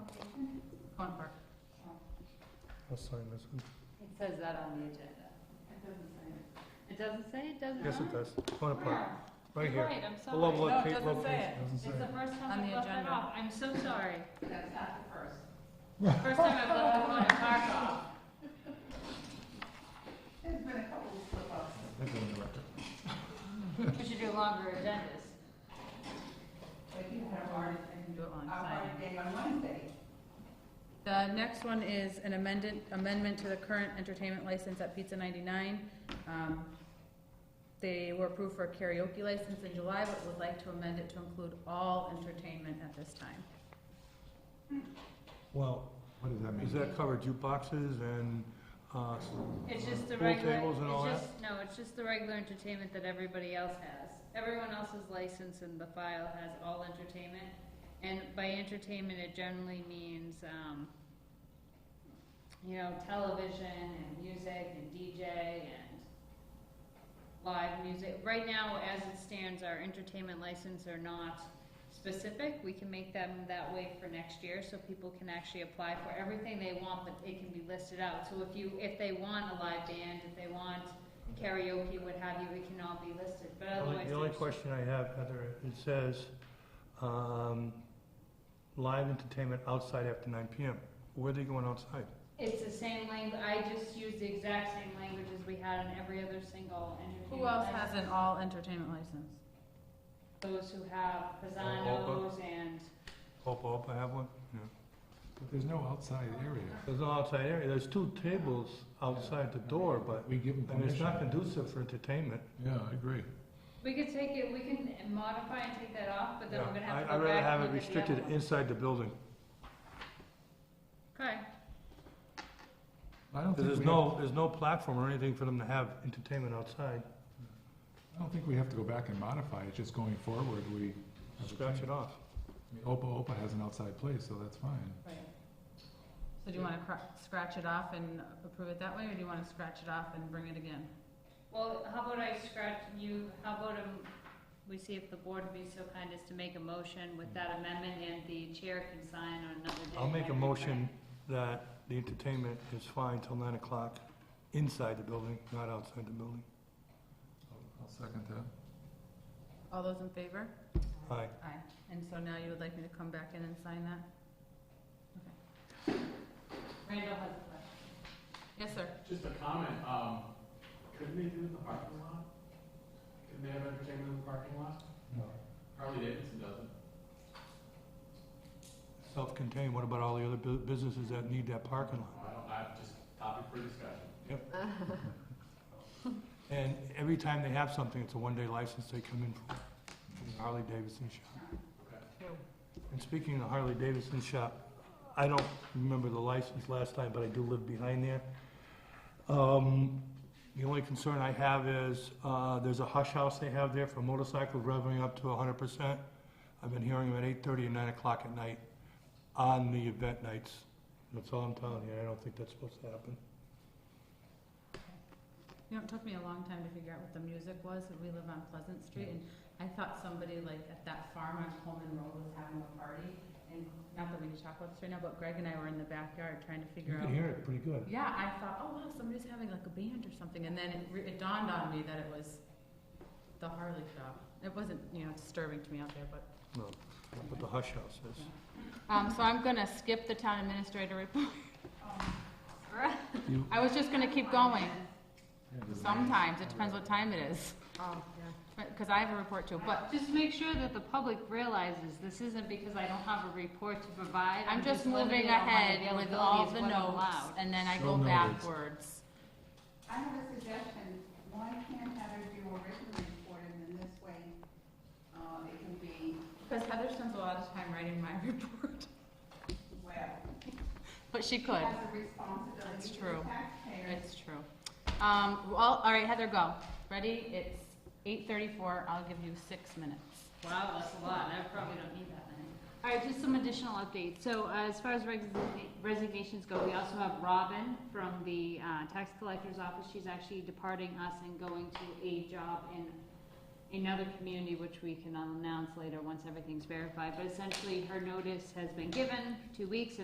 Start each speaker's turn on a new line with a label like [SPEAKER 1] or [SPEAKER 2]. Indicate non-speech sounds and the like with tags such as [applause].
[SPEAKER 1] Corn Park.
[SPEAKER 2] I'll sign this one.
[SPEAKER 1] It says that on the agenda. It doesn't say it. It doesn't say it, does it
[SPEAKER 2] Yes, it
[SPEAKER 1] not?
[SPEAKER 2] does. Corner Park,
[SPEAKER 1] Where?
[SPEAKER 2] right
[SPEAKER 3] You're
[SPEAKER 2] here.
[SPEAKER 3] Right, I'm sorry.
[SPEAKER 2] Below
[SPEAKER 4] No, it
[SPEAKER 2] loca-
[SPEAKER 4] doesn't say
[SPEAKER 2] location.
[SPEAKER 4] it.
[SPEAKER 2] Doesn't
[SPEAKER 3] It's
[SPEAKER 2] say
[SPEAKER 3] the
[SPEAKER 2] it.
[SPEAKER 3] first
[SPEAKER 1] On
[SPEAKER 3] time
[SPEAKER 1] the
[SPEAKER 3] I've left that
[SPEAKER 1] agenda.
[SPEAKER 3] off. I'm so sorry.
[SPEAKER 4] That's not the first.
[SPEAKER 3] First time I've left the corner park off.
[SPEAKER 4] There's been a couple of slip-ups.
[SPEAKER 2] That's on the record.
[SPEAKER 3] We should do longer agendas.
[SPEAKER 4] Like you had a hard, and
[SPEAKER 1] Do it on
[SPEAKER 4] a hard
[SPEAKER 1] Friday.
[SPEAKER 4] day on Wednesday.
[SPEAKER 1] The next one is an amendment, amendment to the current entertainment license at Pizza 99. Um, They were approved for a karaoke license in July, but would like to amend it to include all entertainment at this time.
[SPEAKER 2] Well,
[SPEAKER 5] What does that mean?
[SPEAKER 2] does that cover jukeboxes and, uh, s-
[SPEAKER 3] It's just the
[SPEAKER 2] Pool
[SPEAKER 3] regular,
[SPEAKER 2] tables and all that?
[SPEAKER 3] it's just, no, it's just the regular entertainment that everybody else has. Everyone else's license in the file has all entertainment. And by entertainment, it generally means, um, you know, television and music and DJ and live music. Right now, as it stands, our entertainment license are not specific. We can make them that way for next year, so people can actually apply for everything they want, but it can be listed out. So if you, if they want a live band, if they want karaoke, what have you, it can all be listed, but
[SPEAKER 2] The only-
[SPEAKER 3] otherwise.
[SPEAKER 2] The only
[SPEAKER 3] there's-
[SPEAKER 2] question I have, Heather, it says, um, live entertainment outside after nine PM. Where are they going outside?
[SPEAKER 3] It's the same language, I just used the exact same language as we had in every other single entertainment.
[SPEAKER 1] Who else has
[SPEAKER 3] license.
[SPEAKER 1] an all entertainment license?
[SPEAKER 3] Those who have
[SPEAKER 2] Oh,
[SPEAKER 3] Pisanos and,
[SPEAKER 2] Hope, hope I have one? No.
[SPEAKER 5] But There's no outside area.
[SPEAKER 2] There's no outside area, there's two tables outside the door, but,
[SPEAKER 5] We give them
[SPEAKER 2] I mean, it's
[SPEAKER 5] permission.
[SPEAKER 2] not conducive for entertainment.
[SPEAKER 5] Yeah, I agree.
[SPEAKER 3] we could take it, we can modify and take that off, but then we're gonna have
[SPEAKER 2] I-
[SPEAKER 3] to
[SPEAKER 2] I'd
[SPEAKER 3] go back.
[SPEAKER 2] rather have
[SPEAKER 3] and
[SPEAKER 2] it
[SPEAKER 3] look at the other
[SPEAKER 2] restricted
[SPEAKER 3] one.
[SPEAKER 2] inside the building,
[SPEAKER 3] Okay,
[SPEAKER 5] I don't
[SPEAKER 2] 'cause
[SPEAKER 5] think
[SPEAKER 2] there's
[SPEAKER 5] we have,
[SPEAKER 2] no, there's no platform or anything for them to have entertainment outside.
[SPEAKER 5] I don't think we have to go back and modify it, just going forward, we. have a
[SPEAKER 2] Scratch
[SPEAKER 5] change.
[SPEAKER 2] it off.
[SPEAKER 5] I mean, Opa Opa has an outside place, so that's fine.
[SPEAKER 1] So do you want to scratch it off and approve it that way, or do you want to scratch it off and bring it again?
[SPEAKER 3] well, how about I scratch you, how about, um, we see if the board would be so kind as to make a motion with that amendment and the chair can sign on another day.
[SPEAKER 2] I'll make a
[SPEAKER 3] whatever you
[SPEAKER 2] motion that the entertainment is fine till nine o'clock inside the building, not outside the building.
[SPEAKER 5] I'll second that.
[SPEAKER 1] All those in favor?
[SPEAKER 2] Aye.
[SPEAKER 1] Aye. And so now you would like me to come back in and sign that?
[SPEAKER 3] want. Randall has a question.
[SPEAKER 1] Yes, sir.
[SPEAKER 6] Just a comment, um, couldn't they do it in the parking lot? Couldn't they have entertainment in the parking lot?
[SPEAKER 2] No.
[SPEAKER 6] Harley Davidson doesn't.
[SPEAKER 2] Self-contained, what about all the other bu- businesses that need that parking lot?
[SPEAKER 6] I don't, I just, topic for discussion.
[SPEAKER 2] And every time they have something, it's a one-day license they come in for, from the Harley Davidson shop. And speaking of the Harley Davidson shop, I don't remember the license last time, but I do live behind there. Um, the only concern I have is, uh, there's a hush house they have there for motorcycles revving up to hundred percent. I've been hearing them at eight-thirty and nine o'clock at night on the event nights. That's all I'm telling you, I don't think that's supposed to happen.
[SPEAKER 1] You know, it took me a long time to figure out what the music was, we live on Pleasant Street, and I thought somebody like at that farm on Coleman Road was having a party, and not that we need talk about this right now, but Greg and I were in the backyard trying to
[SPEAKER 2] You
[SPEAKER 1] figure out.
[SPEAKER 2] can hear it pretty good.
[SPEAKER 1] Yeah, I thought, oh wow, somebody's having like a band or something, and then it, re- it dawned on me that it was the Harley shop. It wasn't, you know, disturbing to me out there, but
[SPEAKER 2] No, but the hush house is.
[SPEAKER 1] Um, so I'm gonna skip the town administrator report.
[SPEAKER 3] Um,
[SPEAKER 5] You-
[SPEAKER 1] I was just gonna keep going,
[SPEAKER 5] Yeah, doesn't matter.
[SPEAKER 1] sometimes, it depends what time it is. Oh, yeah. Cause I have a report too, but
[SPEAKER 3] Just make sure that the public realizes this isn't because I don't have a report to provide.
[SPEAKER 1] I'm just moving
[SPEAKER 3] limiting on my
[SPEAKER 1] ahead with all
[SPEAKER 3] availability
[SPEAKER 1] the
[SPEAKER 3] is what I'm
[SPEAKER 1] notes,
[SPEAKER 3] allowed.
[SPEAKER 1] and then I
[SPEAKER 5] So
[SPEAKER 1] go
[SPEAKER 5] noted.
[SPEAKER 1] backwards.
[SPEAKER 4] I have a suggestion, why can't Heather do a written report and then this way, uh, it can be,
[SPEAKER 1] Cause Heather spends a lot of time writing my [laughs] report,
[SPEAKER 4] well,
[SPEAKER 1] but she
[SPEAKER 4] she
[SPEAKER 1] could,
[SPEAKER 4] has a responsibility
[SPEAKER 1] That's
[SPEAKER 4] to
[SPEAKER 1] true.
[SPEAKER 4] the taxpayers.
[SPEAKER 1] it's true. Um, well, all right, Heather, go, ready, it's eight thirty-four, I'll give you six minutes.
[SPEAKER 3] Wow, that's a lot, I probably don't need that many. All right, just some additional updates. So uh, as far as resigna- resignations go, we also have Robin from the uh, tax collector's office. She's actually departing us and going to a job in another community, which we can announce later once everything's verified. But essentially, her notice has been given, two weeks, and